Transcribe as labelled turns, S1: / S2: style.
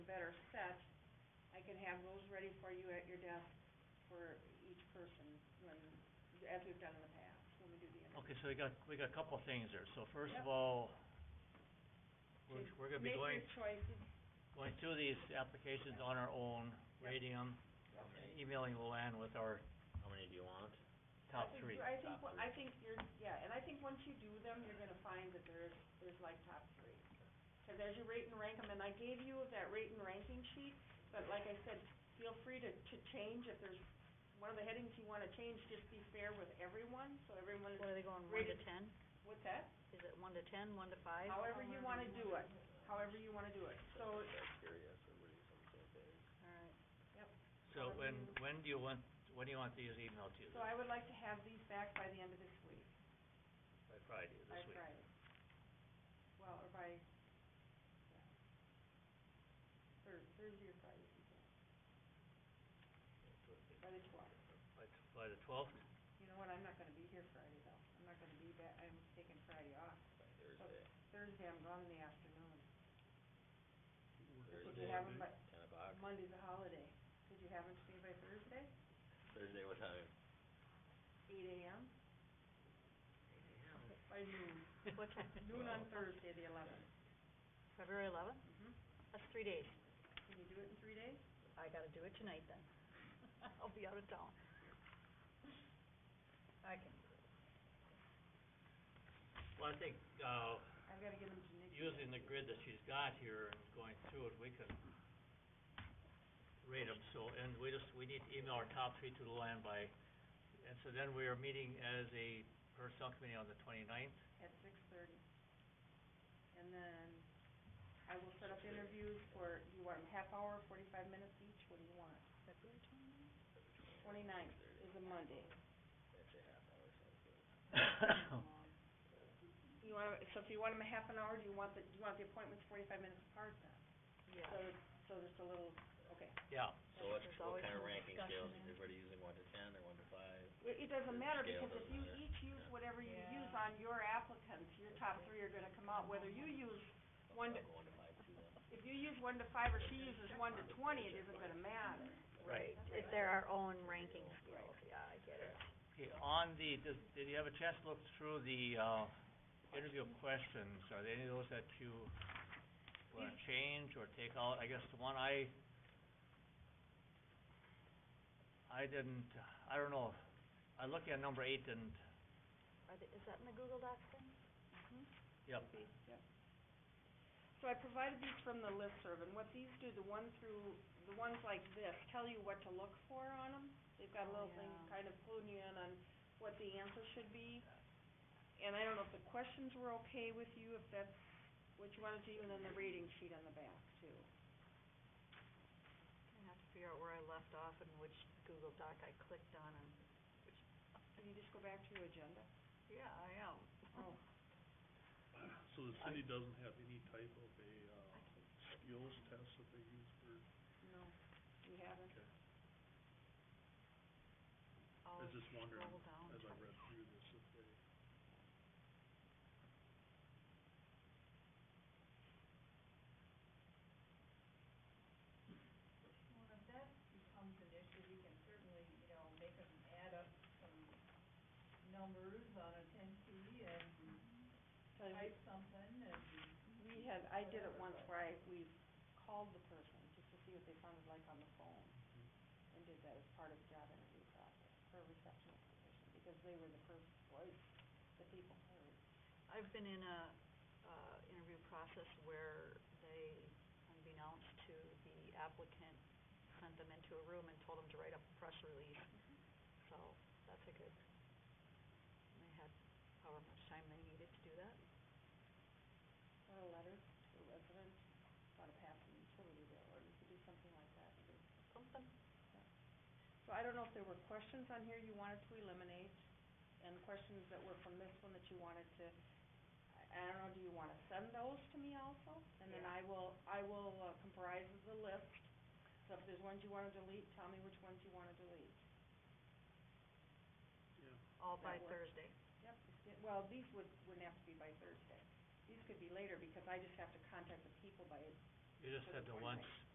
S1: have those ready for you at your desk for each person when, as we've done in the past, when we do the interview.
S2: Okay, so we got, we got a couple of things there. So first
S1: Yep.
S2: of all, we're, we're gonna be going,
S1: Make your choices,
S2: going through these applications on our own,
S1: Yep.
S2: rating them,
S1: Yep.
S2: and emailing Luann with our
S3: How many do you want?
S1: I
S2: top
S1: think-
S2: three.
S1: I think,
S3: Top
S1: wha- I think you're, yeah, and I think once you do them, you're gonna find that there's, there's like top three. Cause there's your rate and rank 'em, and I gave you that rate and ranking sheet, but like I said, feel free to, to change if there's one of the headings you wanna change, just be fair with everyone, so everyone
S4: What
S1: is,
S4: are they going, one to
S1: Rated-
S4: ten?
S1: what's that?
S4: Is it one to ten, one to five?
S1: However you wanna do it, however you wanna do it, so,
S3: Curious, everybody, something like that.
S4: Alright,
S2: So when, when do you want, when do you want these emailed to?
S1: so I would like to have these back by the end of this week,
S2: By Friday,
S1: by
S2: this week.
S1: Friday. Well, or by, yeah. Thur- Thursday or Friday, if you can. by the twelfth.
S2: By, t- by the twelfth?
S1: You know what, I'm not gonna be here Friday though, I'm not gonna be back, I'm taking Friday off.
S3: By Thursday,
S1: Thursday, I'm gone in the afternoon. Could you
S3: Thursday,
S1: have 'em by,
S3: ten o'clock.
S1: Monday's a holiday, could you have them to me by Thursday,
S3: Thursday, what time?
S1: eight AM? By noon,
S4: what time,
S1: noon on Thursday, the eleventh.
S4: February eleventh?
S1: Mm-hmm.
S4: That's three days.
S1: Can you do it in three days?
S4: I gotta do it tonight then. I'll be out of town. I can.
S2: Well, I think, uh,
S1: I've gotta get them to Nikki.
S2: using the grid that she's got here and going through it, we could rate them, so, and we just, we need to email our top three to Luann by, and so then we are meeting as a personnel committee on the twenty-ninth.
S1: At six thirty. And then I will set up interviews for, you want half hour, forty-five minutes each, what do you want?
S4: February twenty-ninth?
S1: Twenty-ninth is a Monday. You want, so if you want them a half an hour, do you want the, do you want the appointments forty-five minutes apart then? So,
S4: Yeah.
S1: so just a little, okay.
S2: Yeah,
S3: So what's,
S4: There's
S3: what
S4: always
S3: kind of
S4: some
S3: ranking
S4: discussion
S3: scales,
S4: there.
S3: everybody using one to ten or one to five?
S1: It, it doesn't matter
S3: Scale
S1: because if
S3: doesn't
S1: you
S3: matter.
S1: each use
S3: Yeah.
S1: whatever you
S4: Yeah.
S1: use on your applicants, your top three are gonna come out, whether you use,
S3: I'll
S1: One to-
S3: go One to five, two then.
S1: if you use one to five or she uses one to twenty, it isn't gonna matter.
S2: Right.
S4: If they're our own ranking scales, yeah, I get it.
S2: okay, on the, does, did you have a chance to look through the, uh, interview questions? Are there any of those that you wanna change or take out? I guess the one I, I didn't, I don't know, I looked at number eight and,
S4: Are they, is that in the Google Docs thing?
S2: yep,
S4: Mm-hmm.
S1: So I provided these from the listserv, and what these do, the one through, the ones like this, tell you what to look for on them. They've got a
S4: Oh,
S1: little thing
S4: yeah.
S1: kind of cluing you in on what the answer should be. And I don't know if the questions were okay with you, if that's what you wanted to, and then the rating sheet on the back too.
S4: I have to figure out where I left off and which Google Doc I clicked on and,
S1: Can you just go back to your agenda?
S4: yeah, I am.
S1: Oh,
S5: So the city doesn't have any type of a, uh, skills test that they use for,
S1: no, we haven't.
S5: okay,
S4: I'll
S5: I was just wondering,
S4: scroll down.
S5: as I read through this, if they,
S1: Type something and. We had, I did it once where I, we called the person just to see what they sounded like on the phone. And did that as part of the job interview process for a receptionist position, because they were the first voice that people heard.
S4: I've been in a, uh, interview process where they, unbeknownst to the applicant, sent them into a room and told them to write up a press release. So, that's a good, and they had however much time they needed to do that.
S1: Or a letter to a resident about a passing utility bill, or you could do something like that.
S4: Something,
S1: So I don't know if there were questions on here you wanted to eliminate, and questions that were from this one that you wanted to, I- I don't know, do you wanna send those to me also? And then I
S4: Yeah.
S1: will, I will uh, comprise the list, so if there's ones you wanna delete, tell me which ones you wanna delete.
S5: yeah.
S4: all by
S1: That works.
S4: Thursday.
S1: Yep. Well, these would, wouldn't have to be by Thursday. These could be later, because I just have to contact the people by,
S2: you just
S1: For the
S2: had the ones